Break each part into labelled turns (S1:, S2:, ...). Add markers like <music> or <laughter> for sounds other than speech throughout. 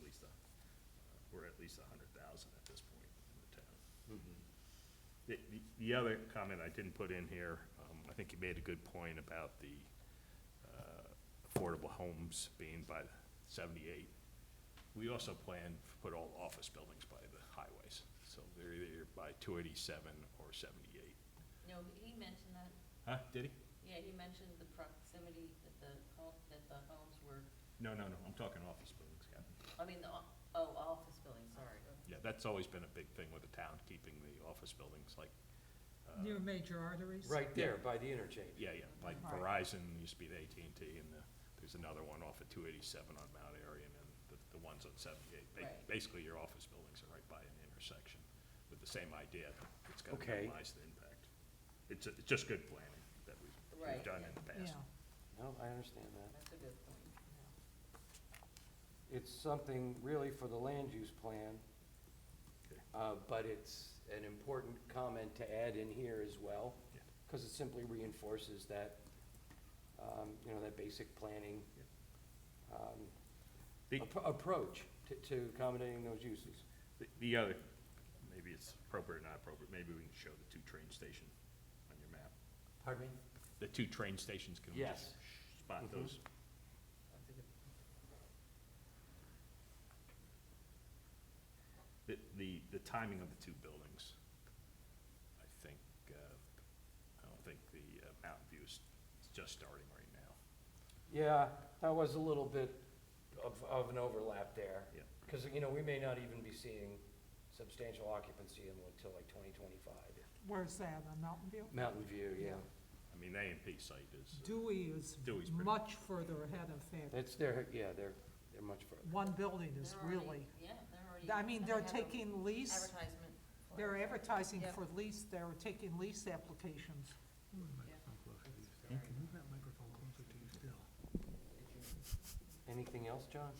S1: uh, least a hundred thousand at this point in the town.
S2: Mm-hmm.
S1: The, the- the other comment I didn't put in here, um, I think you made a good point about the, uh, affordable homes being by the seventy-eight. We also plan to put all office buildings by the highways, so they're either by two eighty-seven or seventy-eight.
S3: No, he mentioned that,
S1: Huh, did he?
S3: yeah, he mentioned the proximity that the, home- that the homes were,
S1: No, no, no, I'm talking office buildings, Captain.
S3: I mean, the, o- oh, office building, sorry.
S1: Yeah, that's always been a big thing with the town, keeping the office buildings like, uh,
S4: Near major arteries?
S2: Right there by the interchange.
S1: yeah, yeah, like
S4: Right.
S1: Verizon used to be the AT&T, and the- there's another one off of 287 on Mount Airy, and then the- the ones on 78. Ba-
S3: Right.
S1: Basically, your office buildings are right by an intersection with the same idea. It's got to
S2: Okay.
S1: minimize the impact. It's, a- it's just good planning that we've-
S3: Right,
S1: we've done
S3: yeah.
S1: in the
S4: Yeah,
S1: past.
S2: No, I understand that.
S3: That's a good point.
S2: It's something really for the land use plan,
S1: Okay.
S2: uh, but it's an important comment to add in here as well,
S1: Yeah.
S2: because it simply reinforces that, um, you know, that basic planning um,
S1: The-
S2: appro- approach to- to accommodating those uses.
S1: The- The other, maybe it's appropriate or not appropriate, maybe we can show the two train station on your map.
S2: Pardon me?
S1: The two train stations can we
S2: Yes.
S1: sh- spot
S2: Mhm.
S1: those.
S3: That's a good point.
S1: The, the, the timing of the two buildings, I think, uh, I don't think the uh, Mountain View's is just starting right now.
S2: Yeah, that was a little bit of, of an overlap there.
S1: Yeah.
S2: Because, you know, we may not even be seeing substantial occupancy until like twenty twenty-five.
S4: where's that, on Mountain View?
S2: Mountain View, yeah.
S1: I mean, the A and P site is,
S4: Dewey is
S1: Dewey's pretty-
S4: much further ahead of that.
S2: That's their, yeah, they're, they're much further.
S4: One building is
S3: They're already-
S4: really,
S3: Yeah, they're already.
S4: I
S3: and
S4: mean,
S3: they
S4: they're
S3: have a
S4: taking lease,
S3: Advertisement. for
S4: they're
S3: it.
S4: advertising
S3: Yeah.
S4: for lease, they're taking lease applications.
S3: Yeah.
S5: Can you move that microphone closer to you still?
S2: Anything else, John?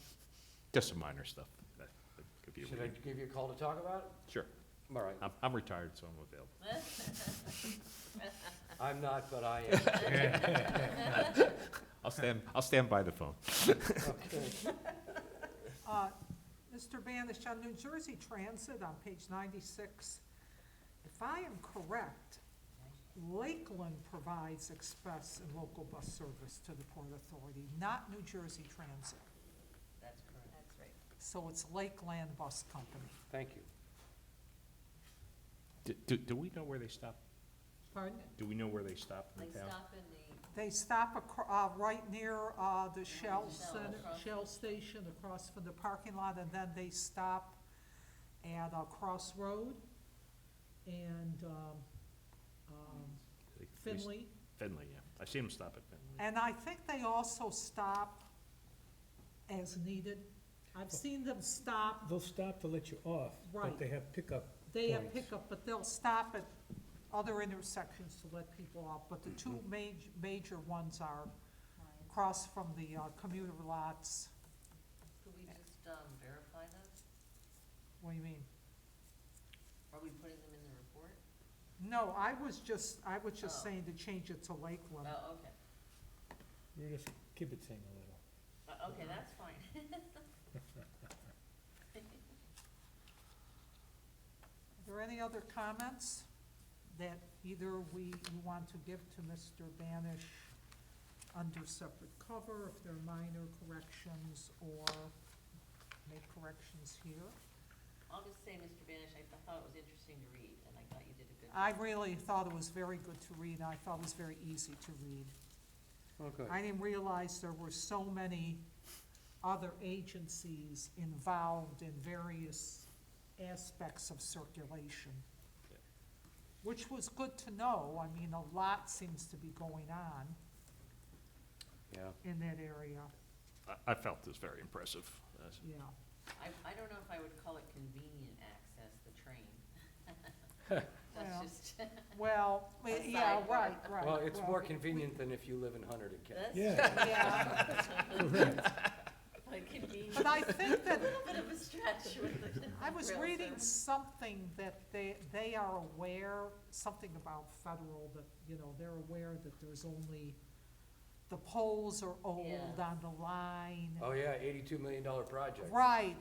S1: just some minor stuff. that- that could be a
S2: Should I
S1: read.
S2: give you a call to talk about it? Uh,
S1: Sure.
S2: All right.
S1: I'm, I'm retired, so I'm available. <laughs>
S2: I'm not, but I <laughs> am.
S1: I'll stand, I'll stand by the phone.
S2: Okay.
S4: Uh, Mr. Banish, on New Jersey Transit on page ninety-six, if I am correct, Lakeland provides express and local bus service to the Port Authority, not New Jersey Transit.
S3: That's correct. That's right.
S4: So it's Lakeland Bus Company.
S2: Thank you.
S1: Do, do, do we know where they stop?
S4: Pardon?
S1: Do we know where they stop in
S3: They
S1: the town?
S3: stop in the,
S4: They stop acro- uh, right near, uh, the Shell
S3: Shell,
S4: Center,
S3: across
S4: Shell Station, across from the parking lot, and then they stop at uh, Crossroad and, um, um,
S1: They- they s-
S4: Finley.
S1: Finley, yeah. I've seen them stop at Finley.
S4: And I think they also stop as needed. I've seen them stop,
S5: They'll stop to let you off,
S4: Right.
S5: but they have pickup.
S4: they have
S5: Points.
S4: pickup, but they'll stop at other intersections to let people off. But the two
S5: Mm-hmm.
S4: maj- major ones are
S3: client.
S4: across from the uh, commuter lots.
S3: could we just, um, verify those?
S4: What do you mean?
S3: Are we putting them in the report?
S4: No, I was just, I was just
S3: Oh.
S4: saying to change it to Lakeland.
S3: Oh, okay.
S5: You're just kibitzing a little.
S3: Uh, okay, that's fine.
S4: Are there any other comments that either we, you want to give to Mr. Banish under separate cover, if there are minor corrections, or make corrections here?
S3: I'll just say, Mr. Banish, I I thought it was interesting to read, and I thought you did a good.
S4: I
S3: job.
S4: really thought it was very good to read, I thought it was very easy to read.
S2: Okay.
S4: I didn't realize there were so many other agencies involved in various aspects of circulation,
S1: Yeah.
S4: which was good to know. I mean, a lot seems to be going on
S2: Yeah.
S4: in that area,
S1: I, I felt this very impressive. Uh,
S4: yeah.
S3: I, I don't know if I would call it convenient access, the train.
S4: Well.
S3: <laughs> That's just,
S4: Well,
S3: A
S4: yeah,
S3: sidebar.
S4: right, right.
S2: Well, it's more convenient than if you live in Hunter to Kent.
S3: that's.
S5: Yeah.
S3: <laughs>
S4: Yeah,
S3: Like convenient,
S4: but I think that,
S3: a bit of a stretch with the.
S4: I was
S3: rail
S4: reading
S3: service.
S4: something that they, they are aware, something about federal, that, you know, they're aware that there's only, the poles are old
S3: Yeah.
S4: on the line.
S2: Oh, yeah, eighty-two million dollar project.
S4: Right,